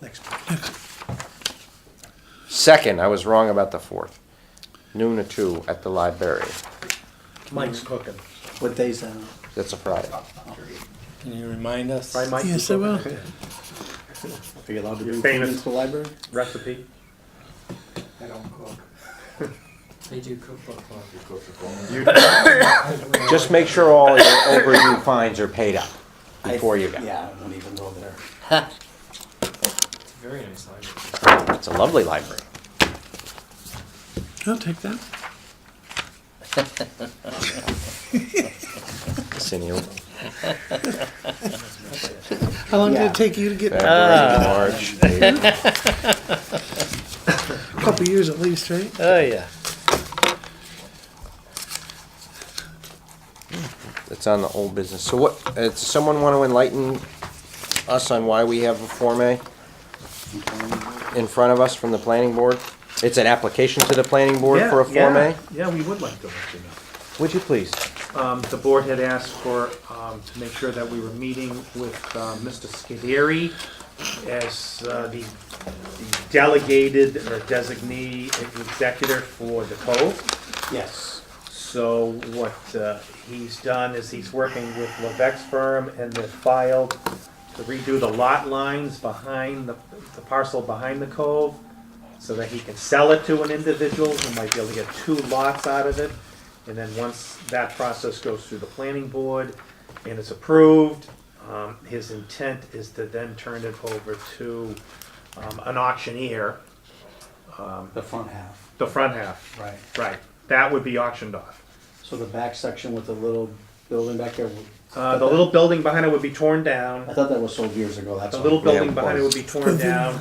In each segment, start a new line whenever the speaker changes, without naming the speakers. next page.
Second, I was wrong about the fourth. Noon to two at the library.
Mike's cooking.
What day's uh, that? on?
That's a Friday.
Can you remind us?
Try Mike's
Yes, I will.
cooking.
Are you allowed to
You're
bring food
famous.
into the library?
Recipe.
I don't cook.
They do cookbook club.
Just make sure all your overdue fines are paid up
I-
before you go.
Yeah, I won't even go there.
It's very nice language.
It's a lovely library.
I'll take that.
It's in you.
How long did
Yeah.
it take you to
Ah.
get? A
February, March, April.
couple years at least, right?
Oh, yeah.
It's on the old business. So what, uh, does someone want to enlighten us on why we have a Form A in front of us from the planning board? It's an application to the planning board
Yeah,
for a Form
yeah,
A?
Yeah, we would like to let you know.
Would you please?
Um, the board had asked for, um, to make sure that we were meeting with, uh, Mr. Scudieri as, uh, the the delegated or designee executor for the Cove.
Yes.
So what uh, he's done is he's working with Levesque's firm and they filed to redo the lot lines behind the, the parcel behind the cove so that he can sell it to an individual who might be able to get two lots out of it. And then once that process goes through the planning board and is approved, um, his intent is to then turn it over to um, an auctioneer,
The front half,
the front half.
right.
Right, that would be auctioned off.
So the back section with the little building back there.
Uh, the little building behind it would be torn
I
down.
thought that was sold years ago, that's
The
all.
little
Yeah,
building behind it
was.
would be torn down,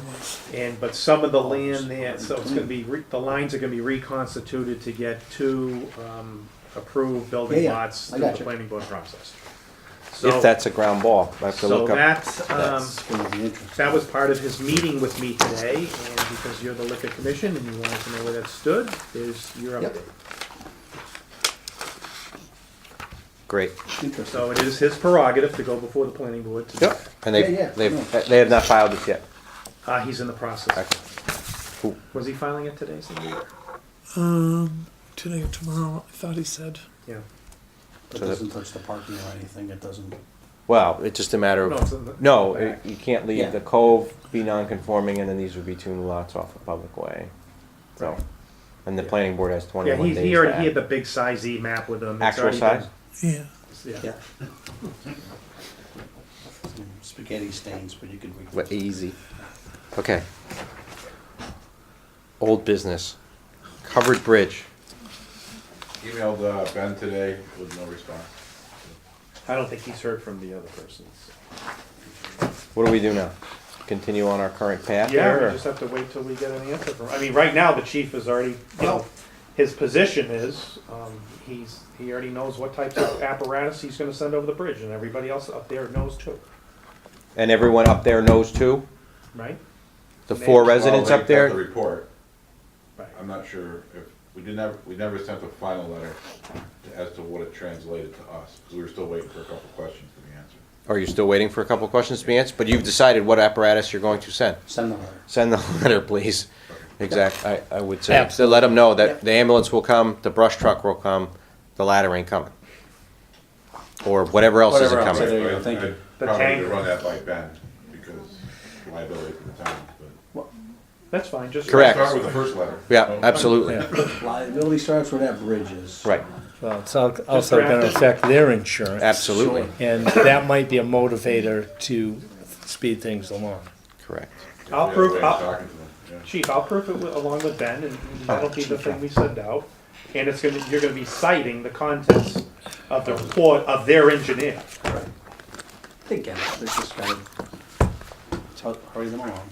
and, but some of the land there, so it's gonna be, re- the lines are gonna be reconstituted to get two, um, approved building
Yeah, yeah,
lots
I
through the
gotcha.
planning board process. So-
If that's a ground ball, I have to
So
look up.
that's, um,
That's gonna be interesting.
that was part of his meeting with me today, and because you're the liquor commission and you wanted to know where that stood, is your
Yep.
update.
Great.
Interesting.
So it is his prerogative to go before the planning board to do
Yep.
that.
And
Yeah, yeah,
they've,
no.
they've, they have not filed this yet.
Uh, he's in the process.
Okay. Cool.
Was he filing it today, Cindy?
Um, today or tomorrow, I thought he said.
Yeah.
It
So that-
doesn't touch the parking or anything, it doesn't.
Well, it's just a matter
No, it's in the-
of, no, it- you can't
Yeah.
leave the cove, be non-conforming, and then these would be two new lots off the public way. So, and the planning board has
Yeah,
twenty-one
he,
days.
he already,
to
he had
act.
the big size E map with him. It's
Actual
already
size?
Yeah.
been- Yeah.
Yeah. Some Spaghetti stains, but you could. re-
Well, Easy. Okay. Old business. Covered bridge.
Emailed uh, Ben today with no response.
I don't think he's heard from the other persons.
What do we do now? Continue on our current path here?
Yeah,
or-
we just have to wait till we get an answer from, I mean, right now, the chief is already, you know, his position is, um, he's, he already knows what types of apparatus he's gonna send over the bridge, and everybody else up there knows too,
And everyone up there knows too?
right?
The
They-
four
Well,
residents
Well,
up
they got The
there?
report,
Right.
I'm not sure if, we did never, we never sent the final letter to- as to what it translated to us, 'cause we were still waiting for a couple questions to be answered.
Are you still waiting for a couple questions to be answered? But you've decided what apparatus you're going to send.
Send the letter.
Send the letter, please. Exactly, I, I would say, to let them know that the ambulance will come, the brush truck will come, the ladder ain't coming. Or whatever else isn't
Whatever else,
coming.
there you go,
I'd-
thank you.
I'd
The
Probably
tank.
run that by Ben, because liability for the town, but.
That's fine, just.
Correct.
Start with the first letter.
Yeah, absolutely,
Liability starts where that bridge is.
right,
Well, it's al- also gonna
drafted.
affect their insurance.
absolutely,
And that might be a motivator to speed things along.
correct.
I'll
Yeah,
prove-
Ben's
I'll-
talking to them, yeah.
Chief, I'll proof it with- along with Ben, and that'll be the thing we send out. And it's gonna, you're gonna be citing the contents of the report of their engineer.
They get it, they just gotta tell- hurry them along.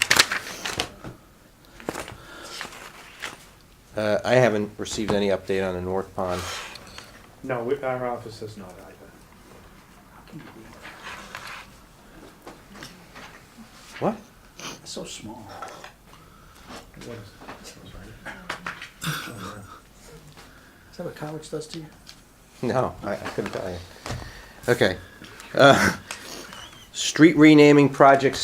Uh, I haven't received any update on the North Pond.
No, we- our office is not either.
What?
It's so small.
What is-
Is that what college does to you?
No, I, I couldn't tell you. Okay. Uh, Street renaming project